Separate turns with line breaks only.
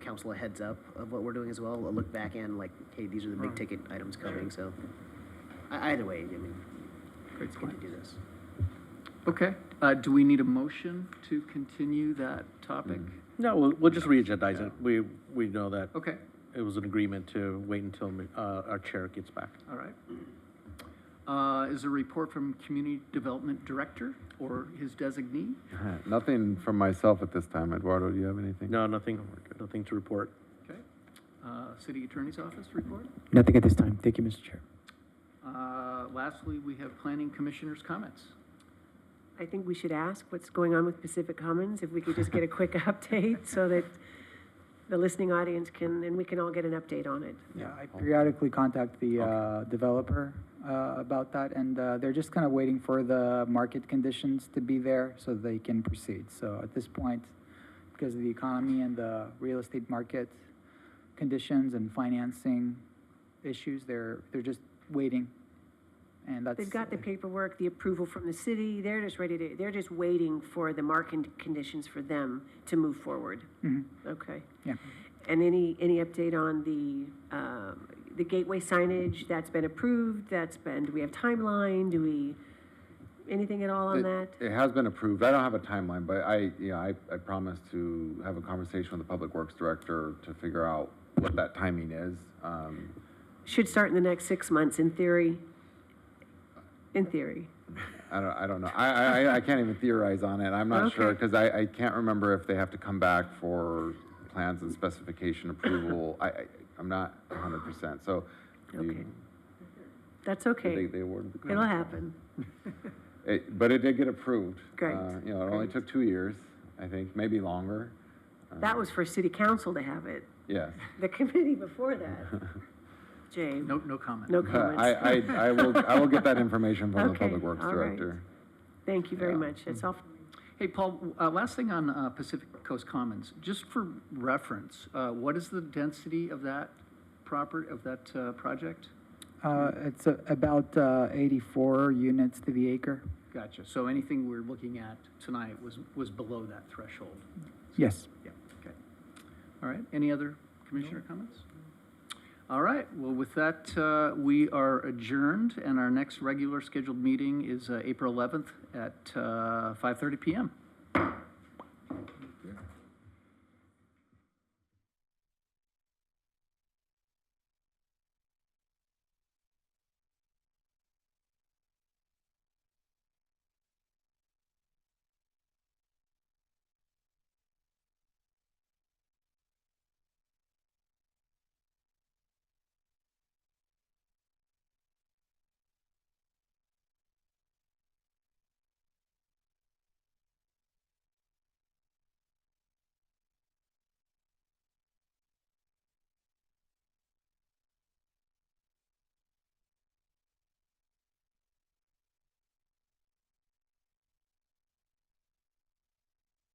council a heads up of what we're doing as well, a look back and like, hey, these are the big
Right.
ticket items coming, so. I- Either way, I mean,
Great
it's good to
point.
do this.
Okay, uh, do we need a motion to continue that topic?
No, we'll, we'll just re-agendize it. We, we know that
Okay,
it was an agreement to wait until, uh, our chair gets back.
all right. Uh, is a report from Community Development Director or his designee?
Nothing from myself at this time. Eduardo, do you have anything?
No, nothing, nothing to report.
Okay, uh, City Attorney's Office report?
Nothing at this time. Thank you, Mr. Chair.
Uh, lastly, we have Planning Commissioner's comments.
I think we should ask what's going on with Pacific Commons, if we could just get a quick update so that the listening audience can, and we can all get an update on it.
Yeah, I periodically contact the uh, developer uh, about that, and uh, they're just kind of waiting for the market conditions to be there so they can proceed. So at this point, because of the economy and the real estate market conditions and financing issues, they're, they're just waiting. And that's.
They've got the paperwork, the approval from the city, they're just ready to, they're just waiting for the market conditions for them to move forward.
Mhm,
Okay.
Yeah.
And any, any update on the, um, the gateway signage, that's been approved, that's been, do we have timeline, do we, anything at all on
It-
that?
It has been approved. I don't have a timeline, but I, you know, I, I promised to have a conversation with the Public Works Director to figure out what that timing is. Um,
Should start in the next six months, in theory. In theory.
I don't, I don't know. I, I, I- I can't even theorize on it. I'm not sure,
Okay.
because I, I can't remember if they have to come back for plans and specification approval. I, I, I'm not hundred percent, so. you-
Okay. That's
They,
okay.
they awarded the.
It'll
contract.
happen.
It, but it did get approved.
Great,
Uh, You know, it only
great.
took two years, I think, maybe longer. Uh-huh. Uh,
That was for city council to have it.
Yes.
The committee before that. Jay,
No, no comment.
no
Uh, I,
comments.
I, I will, I will get that information from the
Okay,
Public Works
all right.
Director.
Thank you very
yeah.
much. That's all.
Hey, Paul, uh, last thing on uh, Pacific Coast Commons, just for reference, uh, what is the density of that proper, of that uh, project?
Uh, It's uh, about uh, 84 units to the acre.
Gotcha, so anything we're looking at tonight was, was below that threshold?
Yes.
Yeah, okay. All right, any other commissioner comments? All right, well, with that, uh, we are adjourned, and our next regular scheduled meeting is uh, April 11th at uh, 5:30 PM.